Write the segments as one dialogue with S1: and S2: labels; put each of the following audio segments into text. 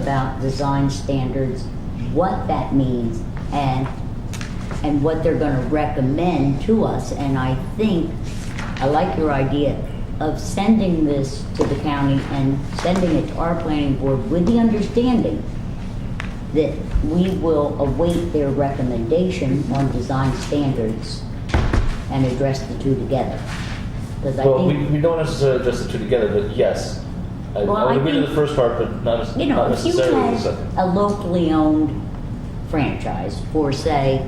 S1: about design standards, what that means, and, and what they're gonna recommend to us. And I think, I like your idea of sending this to the county and sending it to our planning board with the understanding that we will await their recommendation on design standards and address the two together. 'Cause I
S2: Well, we,
S1: think,
S2: we don't necessarily address the two together, but yes. I,
S1: Well,
S2: I
S1: I
S2: would agree to the
S1: think-
S2: first part, but not,
S1: you
S2: nec-
S1: know,
S2: not
S1: if you
S2: necessarily the
S1: had
S2: second.
S1: a locally owned franchise for, say,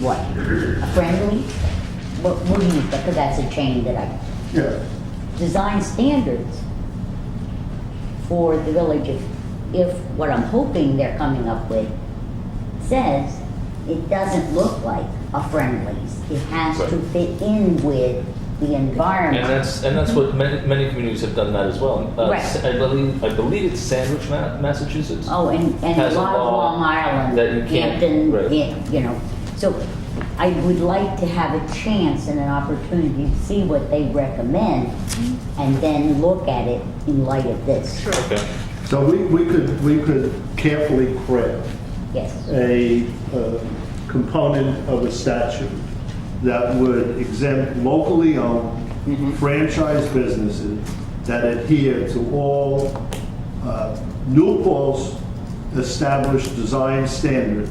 S1: what, a friendly? What, what do you, because that's a chain that I,
S3: Yeah,
S1: design standards for the village if, if what I'm hoping they're coming up with says it doesn't look like a friendlies. It has to
S2: Right.
S1: fit in with the
S2: And
S1: environment.
S2: that's and that's what many, many communities have done that as well. Uh,
S1: Right.
S2: Sa- I believe I believe it's Sandwich, Ma- Massachusetts.
S1: Oh, and, and a
S2: Has a
S1: lot of
S2: law
S1: Long Island,
S2: that you can't-
S1: Hampton,
S2: right.
S1: yeah, you know. So I would like to have a chance and an opportunity to see what they recommend and then look at it in light of this.
S2: Okay.
S3: so we, we could, we could carefully craft
S1: Yes.
S3: a uh, component of a statute that would exempt locally owned franchise businesses that adhere to all uh, New Paul's established design standards.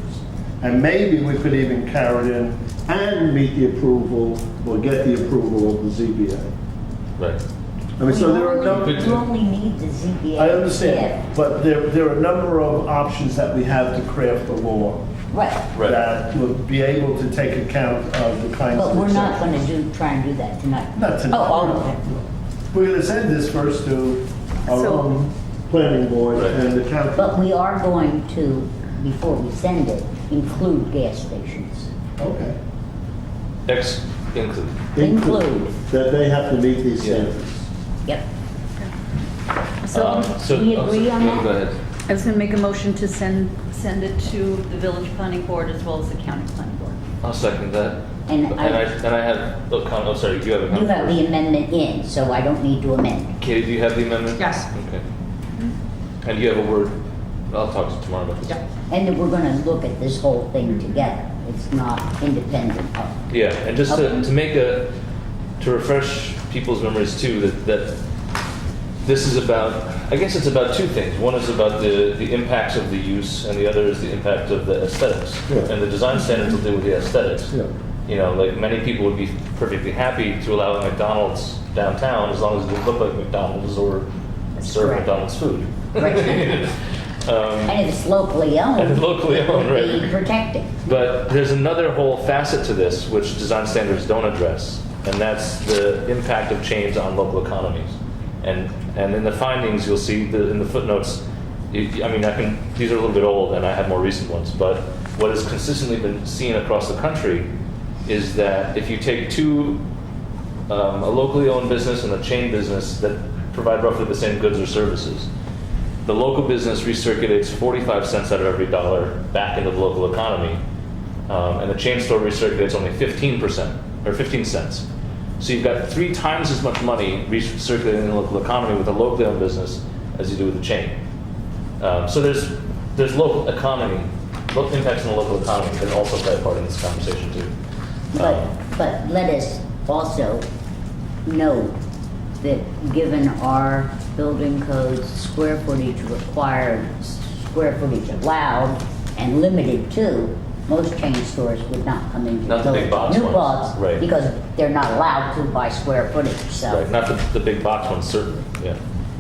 S3: And maybe we could even carry it in and meet the approval or get the approval of the ZBA.
S2: Right.
S3: I mean, so there are a
S1: We
S3: number.
S1: only- You only need the ZBA.
S3: I understand, but there, there are a number of options that we have to craft a law
S1: Yeah, Right,
S2: Right.
S3: that would be able to take account of the kinds of.
S1: but we're not
S3: exceptions.
S1: gonna do, try and do that tonight.
S3: Not tonight.
S1: Oh,
S3: We're gonna send this first to our own planning board
S2: Right.
S3: and the
S1: oh,
S3: county.
S1: but we are going to, before we send it, include gas stations.
S3: Okay.
S2: X include.
S1: Include,
S3: That they have to meet these
S2: Yeah.
S3: standards.
S1: yep.
S2: Um,
S4: So
S2: so
S1: we
S2: oh, so-
S1: agree on
S2: no,
S1: that?
S2: Go ahead.
S4: I was going to make a motion to send, send it to the village planning board as well as the county planning board.
S2: I'll second that.
S1: And
S2: and
S1: I-
S2: I and I have a comment. Oh, sorry. You have a
S1: You
S2: comment.
S1: have
S2: first.
S1: the amendment in, so I don't need to amend.
S2: Katie, do you have the amendment?
S5: Yes.
S2: Okay.
S1: Mm-hmm.
S2: And you have a word. I'll talk to you tomorrow about this.
S5: Yeah.
S1: And then we're gonna look at this whole thing
S2: Mm-hmm.
S1: together. It's not independent of.
S2: Yeah, and just
S1: Okay.
S2: to, to make a to refresh people's memories too that that this is about I guess it's about two things. One is about the the impacts of the use, and the other is the impact of the aesthetics.
S3: Yeah.
S2: And the design standards will deal with the aesthetics.
S3: Yeah.
S2: You know, like many people would be perfectly happy to allow a McDonald's downtown as long as it looked like McDonald's or serve
S1: correct.
S2: McDonald's food.
S1: Right.
S2: um,
S1: And if it's locally owned.
S2: And locally owned,
S1: it would
S2: right.
S1: Be protected.
S2: but there's another whole facet to this which design standards don't address, and that's the impact of change on local economies. And and in the findings, you'll see the, in the footnotes. you- I mean, I can these are a little bit old, and I have more recent ones. But what has consistently been seen across the country is that if you take two um, a locally owned business and a chain business that provide roughly the same goods or services. The local business recirculates 45 cents out of every dollar back into the local economy, um, and the chain store recirculates only 15% or 15 cents. So you've got three times as much money recirculating in the local economy with a locally owned business as you do with the chain. Um, so there's there's local economy, lo- impacts on the local economy that also play a part in this conversation too.
S1: But,
S2: Um,
S1: but let us also note that given our building codes, square footage required, square footage allowed and limited to, most chain stores would not come into.
S2: Not the big box
S1: New
S2: ones,
S1: box,
S2: right.
S1: because they're not allowed to by square footage,
S2: right,
S1: so
S2: not the, the big box ones certainly. Yeah.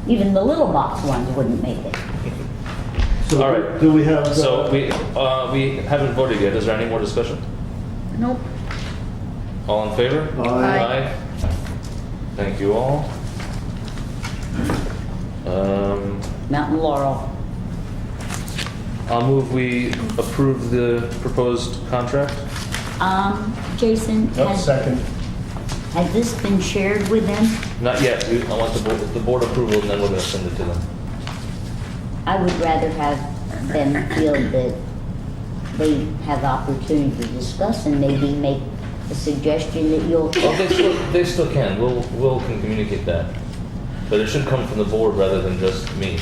S1: even the little box ones wouldn't make it.
S2: All
S3: So
S2: right.
S3: do we have? uh,
S2: So we, uh, we haven't voted yet. Is there any more discussion?
S4: Nope.
S2: All in favor?
S3: Aye.
S4: Aye.
S2: Thank you all. Um,
S1: Mountain Laurel,
S2: I'll move we approve the proposed contract.
S1: um, Jason,
S3: Oh,
S1: has,
S3: Second.
S1: has this been shared with them?
S2: Not yet. We, I want the board, the board approval and then we're gonna send it to them.
S1: I would rather have them feel that they have opportunity to discuss and maybe make a suggestion that you'll,
S2: Well, they still, they still can. We'll, Will can communicate that. But it should come from the board rather than just me.